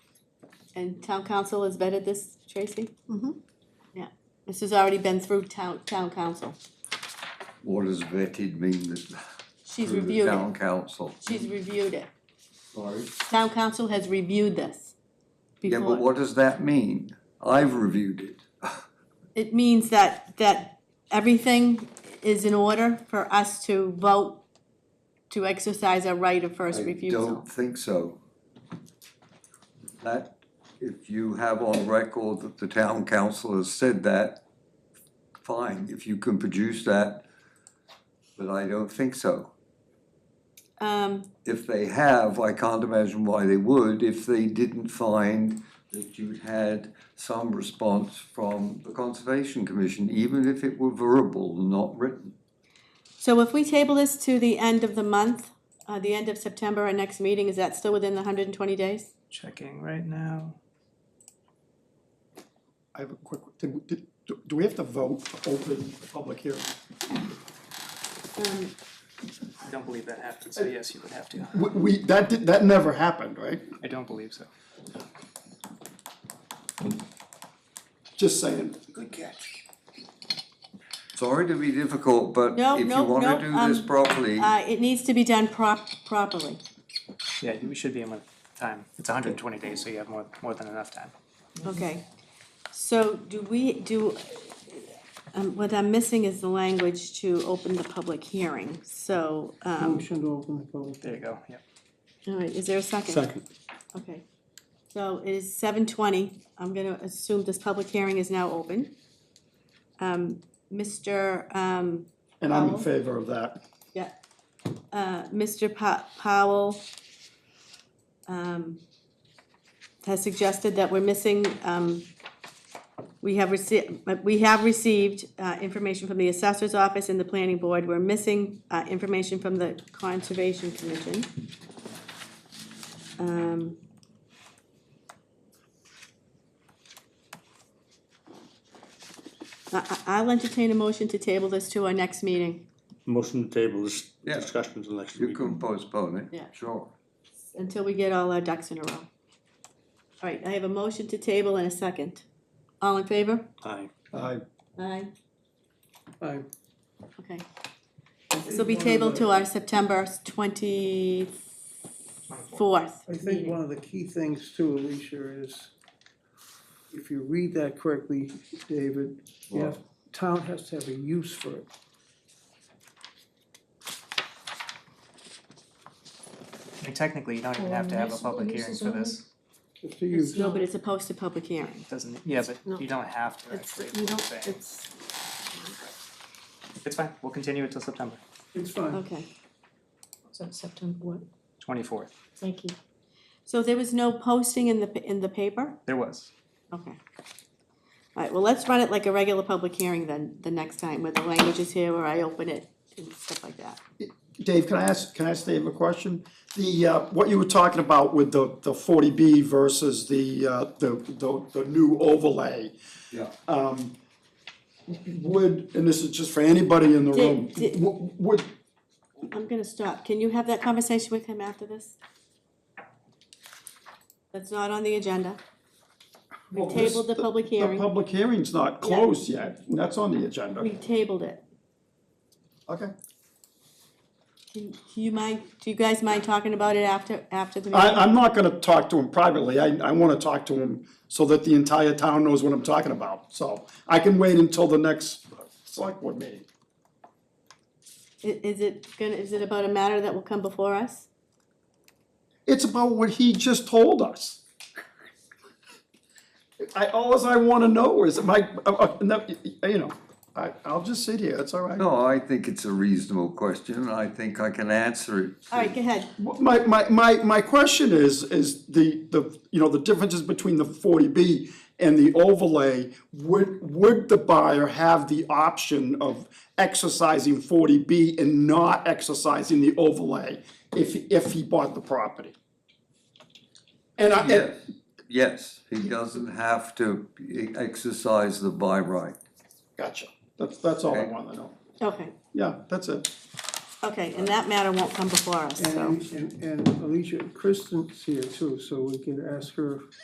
And town council has vetted this, Tracy? Mhm. Yeah, this has already been through town, town council. What does vetted mean that? She's through the reviewed it, Town council. she's reviewed it. Sorry. Town council has reviewed this Yeah, before. but what does that mean? I've reviewed it. It means that, that everything is in order for us to vote to exercise our right of first I refusal. don't think so. That, if you have on record that the town council has said that, fine, if you can produce that, but I don't think so. Um, If they have, I can't imagine why they would if they didn't find that you'd had some response from the Conservation Commission, even if it were verbal, not written. so if we table this to the end of the month, uh, the end of September, our next meeting, is that still within the hundred and twenty days? Checking right now. I have a quick, did, did, do do we have to vote to open the public hearing? Um, I don't believe that happened, so yes, you would have to. We, we, that did, that never happened, right? I don't believe so. Just saying. Good catch. Sorry to be difficult, but No, if you no, no, wanna do this um, properly, Uh, it needs to be done prop, properly. Yeah, we should be in with time. It's hundred and twenty days, so you have more, more than enough time. Okay, so do we, do, um, what I'm missing is the language to open the public hearing, so, um, Motion to open the public. There you go, yep. all right, is there a second? Okay, so it is seven twenty, I'm gonna assume this public hearing is now open. Um, Mr., um, And I'm in Powell? favor of that. yeah, uh, Mr. Pa- Powell, um, has suggested that we're missing, um, we have received, we have received, uh, information from the assessor's office and the planning board, we're missing, uh, information from the conservation commission. Um, I, I- I'll entertain a motion to table this to our next meeting. Motion to table this Yeah. discussion to the next you week. can postpone it, Yeah. sure. until we get all our ducks in a row. All right, I have a motion to table and a second. All in favor? Aye. I, Aye. Aye. Okay. This will be tabled to our September twenty-fourth. I think one of the key things too, Alicia, is if you read that correctly, David, you have, town has to have a use for it. And technically, you don't even have to have a public hearing for this. It's a It's- use. No, but it's a posted public hearing. Doesn't, yeah, No. but you don't have to It's, actually. you is what I'm don't, saying. it's, It's fine, we'll continue it till September it's fine. Okay. So September what? twenty-fourth. Thank you. So there was no posting in the, pa- in the paper? There was. Okay. All right, well, let's run it like a regular public hearing then, the next time, where the language is here, where I open it and stuff like that. Dave, can I ask, can I ask Dave a question? The, uh, what you were talking about with the, the forty B versus the, uh, the, the, the new overlay. Yeah. Um, would, and this is just for anybody in the Did- room, did- w- would, I'm gonna stop. Can you have that conversation with him after this? That's not on the agenda. We Well, this- tabled the public the hearing. public hearing's not closed yet, and that's on the agenda. We tabled it. Okay. Can, do you mind, do you guys mind talking about it after, after the I, meeting? I'm not gonna talk to him privately, I, I wanna talk to him so that the entire town knows what I'm talking about, so I can wait until the next select board meeting. I- Is it gonna, is it about a matter that will come before us? It's about what he just told us. I, alls I wanna know is, my, uh, uh, no, you know, I, I'll just sit here, it's all right. No, I think it's a reasonable question, and I think I can answer it. All right, go ahead. My, my, my, my question is, is the, the, you know, the differences between the forty B and the overlay, would, would the buyer have the option of exercising forty B and not exercising the overlay if, if he bought the property? And I, Yes, yes, he doesn't have to e- exercise the by right. gotcha, that's, that's all I Okay. wanna know, Okay, yeah, that's it. okay, and that matter won't come before us, so. And, and, and Alicia, Kristen's here too, so we can ask her